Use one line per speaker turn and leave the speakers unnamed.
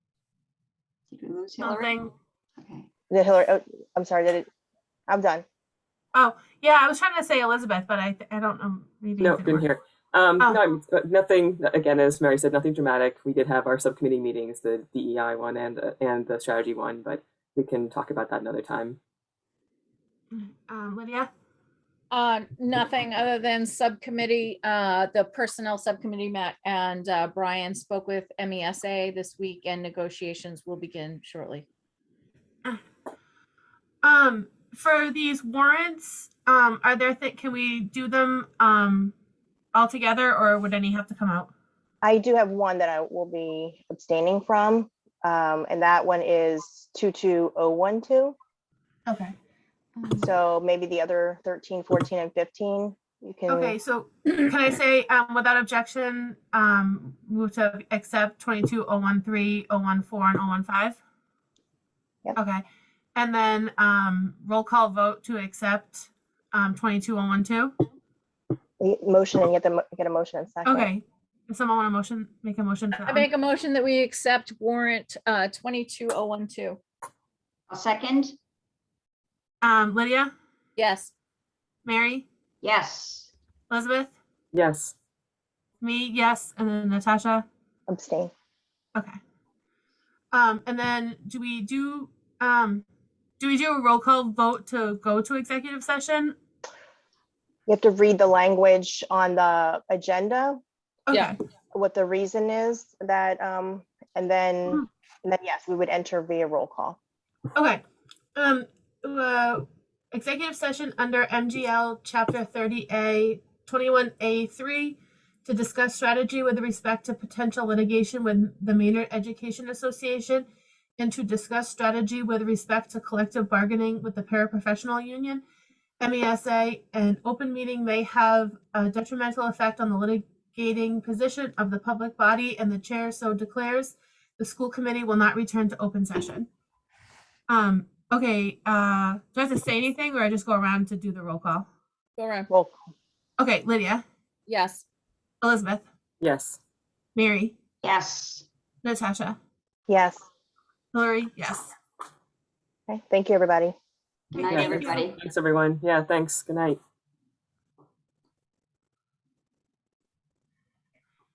lose
Oh,
Hillary?
Nothing.
Okay.
The Hillary, oh, I'm sorry, that it, I'm done.
Oh, Yeah, I was trying to say Elizabeth, but I th- I don't know. Reading
No,
didn't
didn't
work.
hear. Um,
Oh.
no, I'm- uh, nothing. Again, as Mary said, nothing dramatic. We did have our subcommittee meetings, the DEI one and uh, and the strategy one, but we can talk about that another time.
Um, Lydia.
Uh, nothing other than subcommittee, uh, the personnel subcommittee met and, uh, Brian spoke with MESA this week and negotiations will begin shortly.
Um, for these warrants, um, are there th- can we do them um all together, or would any have to come out?
I do have one that I will be abstaining from, um, and that one is 22012.
Okay.
So maybe the other 13, 14, and 15, you
Okay.
can,
So can I say um, without objection, um, move to accept twenty two oh one three oh one four and oh one five.
Yep.
Okay, and then um, roll call vote to accept um twenty two oh one two.
y- e, motion and get them, get a motion and second.
Okay. Does someone want a motion? Make a motion. For
I
that
make a motion that we accept warrant, uh, twenty-two oh one two.
A second?
one? Um, Lydia,
Yes.
Mary,
Yes.
Elizabeth,
Yes.
me, yes, and then Natasha.
Abstain.
Okay. Um, and then do we do um do we do a roll call vote to go to executive session?
You have to read the language on the agenda,
Okay.
Yeah.
what the reason is that, um, and
Hmm.
then, and then yes, we would enter via roll call.
Okay. Um uh, executive session under MGL chapter 30A 21A3 to discuss strategy with respect to potential litigation with the Maynard Education Association and to discuss strategy with respect to collective bargaining with the paraprofessional union. E MESA an open meeting may have a detrimental effect on the litigating position of the public body and the chair so declares the school committee will not return to open session. Um, okay, uh, do I have to say anything or I just go around to do the roll call?
Go around.
Roll,
Okay, Lydia,
Yes.
Elizabeth,
Yes.
Mary,
Yes.
Natasha,
yes.
Hillary, yes.
Okay, thank you, everybody.
Good night,
Yeah,
everybody.
Thanks, everyone. Yeah. Thanks. Good night.